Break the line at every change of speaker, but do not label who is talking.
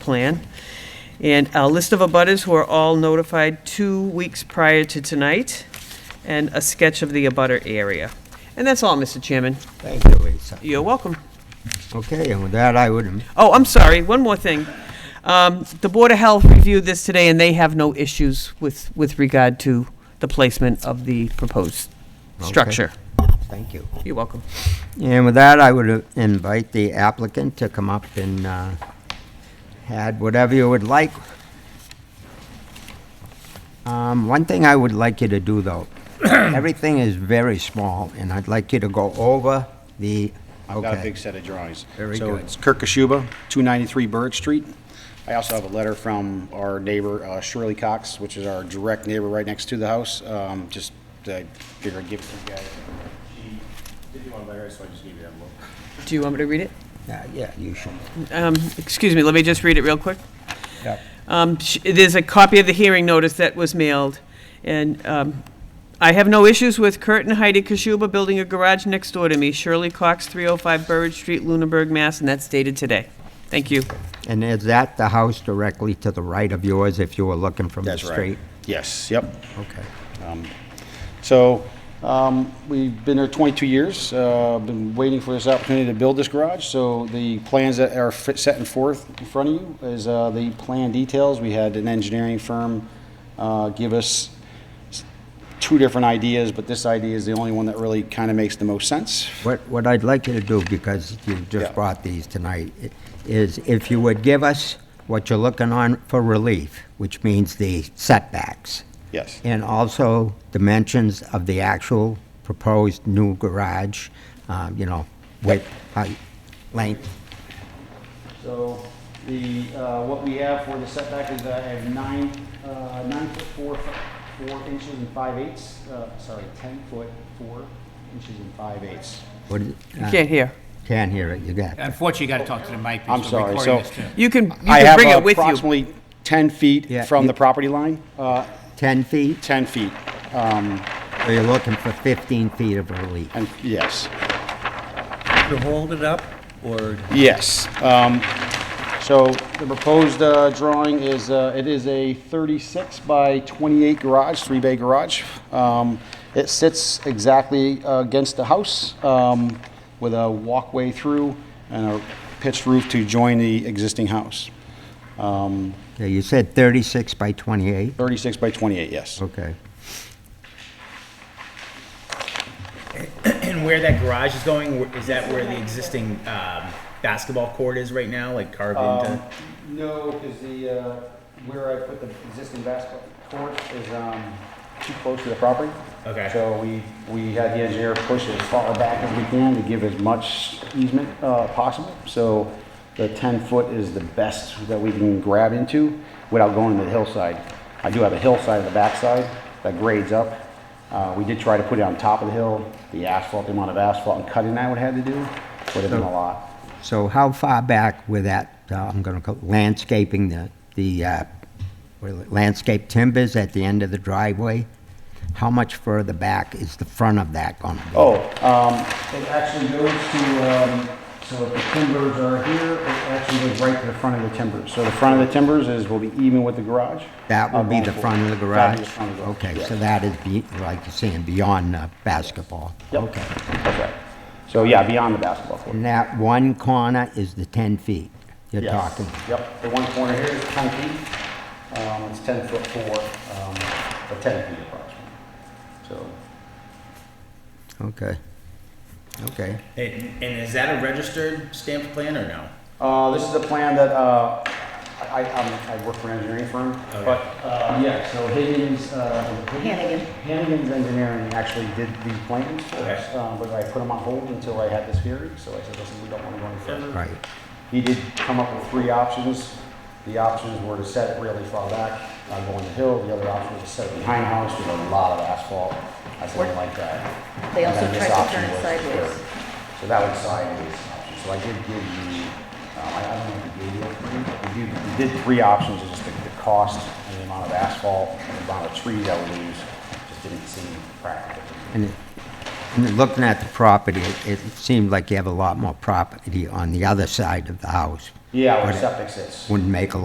plan. And a list of abutters who are all notified two weeks prior to tonight, and a sketch of the abutter area. And that's all, Mr. Chairman.
Thank you, Lisa.
You're welcome.
Okay, and with that, I would,
Oh, I'm sorry, one more thing. Um, The Board of Health reviewed this today, and they have no issues with, with regard to the placement of the proposed
Okay.
structure.
thank you.
You're welcome.
And with that, I would invite the applicant to come up and uh, add whatever you would like. Um, One thing I would like you to do, though, everything is very small, and I'd like you to go over the,
I've got a
okay,
big set of drawings.
Very
So
good.
it's Kirk Kashuba, 293 Bird Street. I also have a letter from our neighbor uh, Shirley Cox, which is our direct neighbor right next to the house. Um, Just, I figured I'd give it to you guys. She did you one letter, so I just gave you that look.
Do you want me to read it?
Yeah, yeah, you should.
Um, Excuse me, let me just read it real quick.
Yep.
Um, sh- There's a copy of the hearing notice that was mailed, and um, I have no issues with Kurt and Heidi Kashuba building a garage next door to me, Shirley Cox, 305 Burridge Street, Lunenburg, Mass., and that's dated today. Thank you.
And is that the house directly to the right of yours, if you were looking from the
That's right.
street?
Yes, yep.
Okay.
So, um, we've been there 22 years, uh, been waiting for this opportunity to build this garage. So the plans that are fit- set and forth in front of you is uh, the plan details. We had an engineering firm uh, give us s- two different ideas, but this idea is the only one that really kind of makes the most sense.
What, what I'd like you to do, because you just
Yeah.
brought these tonight, i- is if you would give us what you're looking on for relief, which means the setbacks,
Yes.
and also dimensions of the actual proposed new garage, uh, you know, width, height, length.
So the, uh, what we have for the setback is I have nine, uh, nine foot four, f- four inches and five eighths, uh, sorry, 10 foot four inches and five eighths.
What is-
You
uh,
Ah.
can't hear.
Can't hear it, you got it.
Unfortunately, you got to talk to the mic.
I'm
because we're
sorry,
recording
so.
this, too.
You can, you
I
can
have
bring it with you.
approximately 10
Yeah,
feet from
you-
the property line, uh,
10 feet,
10 feet. Um,
so you're looking for 15 feet of relief.
And, yes,
To hold it up, or
yes. Um, So the proposed uh, drawing is, uh, it is a 36 by 28 garage, three-bay garage. Um, It sits exactly uh, against the house um, with a walkway through and a pitched roof to join the existing house. Um,
Okay, You said 36 by 28?
36 by 28, yes.
Okay.
And where that garage is going, wh- is that where the existing um, basketball court is right now, like carved
Um,
into?
No, because the, uh, where I put the existing basketball court is um, too close to the property.
Okay.
So we, we had the engineer push it as far back as we can to give as much easement uh, possible. So the 10-foot is the best that we can grab into without going to the hillside. I do have a hillside on the backside that grades up. Uh, We did try to put it on top of the hill. The asphalt, the amount of asphalt and cutting I would have had to do would have been a lot.
So how far back with that, uh, I'm going to call landscaping, the, the uh, what are the- landscape timbers at the end of the driveway? How much further back is the front of that going to be?
Oh, um, it actually goes to, um, so if the timbers are here, it actually goes right to the front of the timbers. So the front of the timbers is, will be even with the garage.
That
Uh,
will be
going
the
forward.
front of the
That'll
garage?
be the front of the garage.
Okay,
Yeah.
so that is, be- like you're saying, beyond uh, basketball?
Yep.
Okay.
That's right. So, yeah, beyond the basketball court.
And that one corner is the 10 feet you're
Yes.
talking?
Yep, the one corner here is ten feet, um, it's ten foot four, um, or ten feet approximately. So,
Okay. Okay.
And, and is that a registered stamped plan or no?
uh, this is a plan that, uh, I, I, I work for an engineering firm, but, uh, yeah, so Higgins, uh,
Hannigan.
Hannigan's Engineering actually did the plans for us,
Okay.
um, but I put them on hold until I had this hearing, so I said, listen, we don't want to go any further.
Right.
He did come up with three options. The options were to set it really far back, not going the hill. The other option was to set it behind the house with a lot of asphalt. I said, I don't like that.
They
And
also
then this
tried to
option
turn it
was
sideways.
third. So that was sideways option. So I did give you, um, I I don't know if you gave you a three. We did- We did three options, just the, the cost and the amount of asphalt and the amount of trees that we lose. Just didn't seem practical.
And it- and it- looking at the property, it- it seemed like you have a lot more property on the other side of the house
Yeah, where
Would it-
septic sits.
Wouldn't make a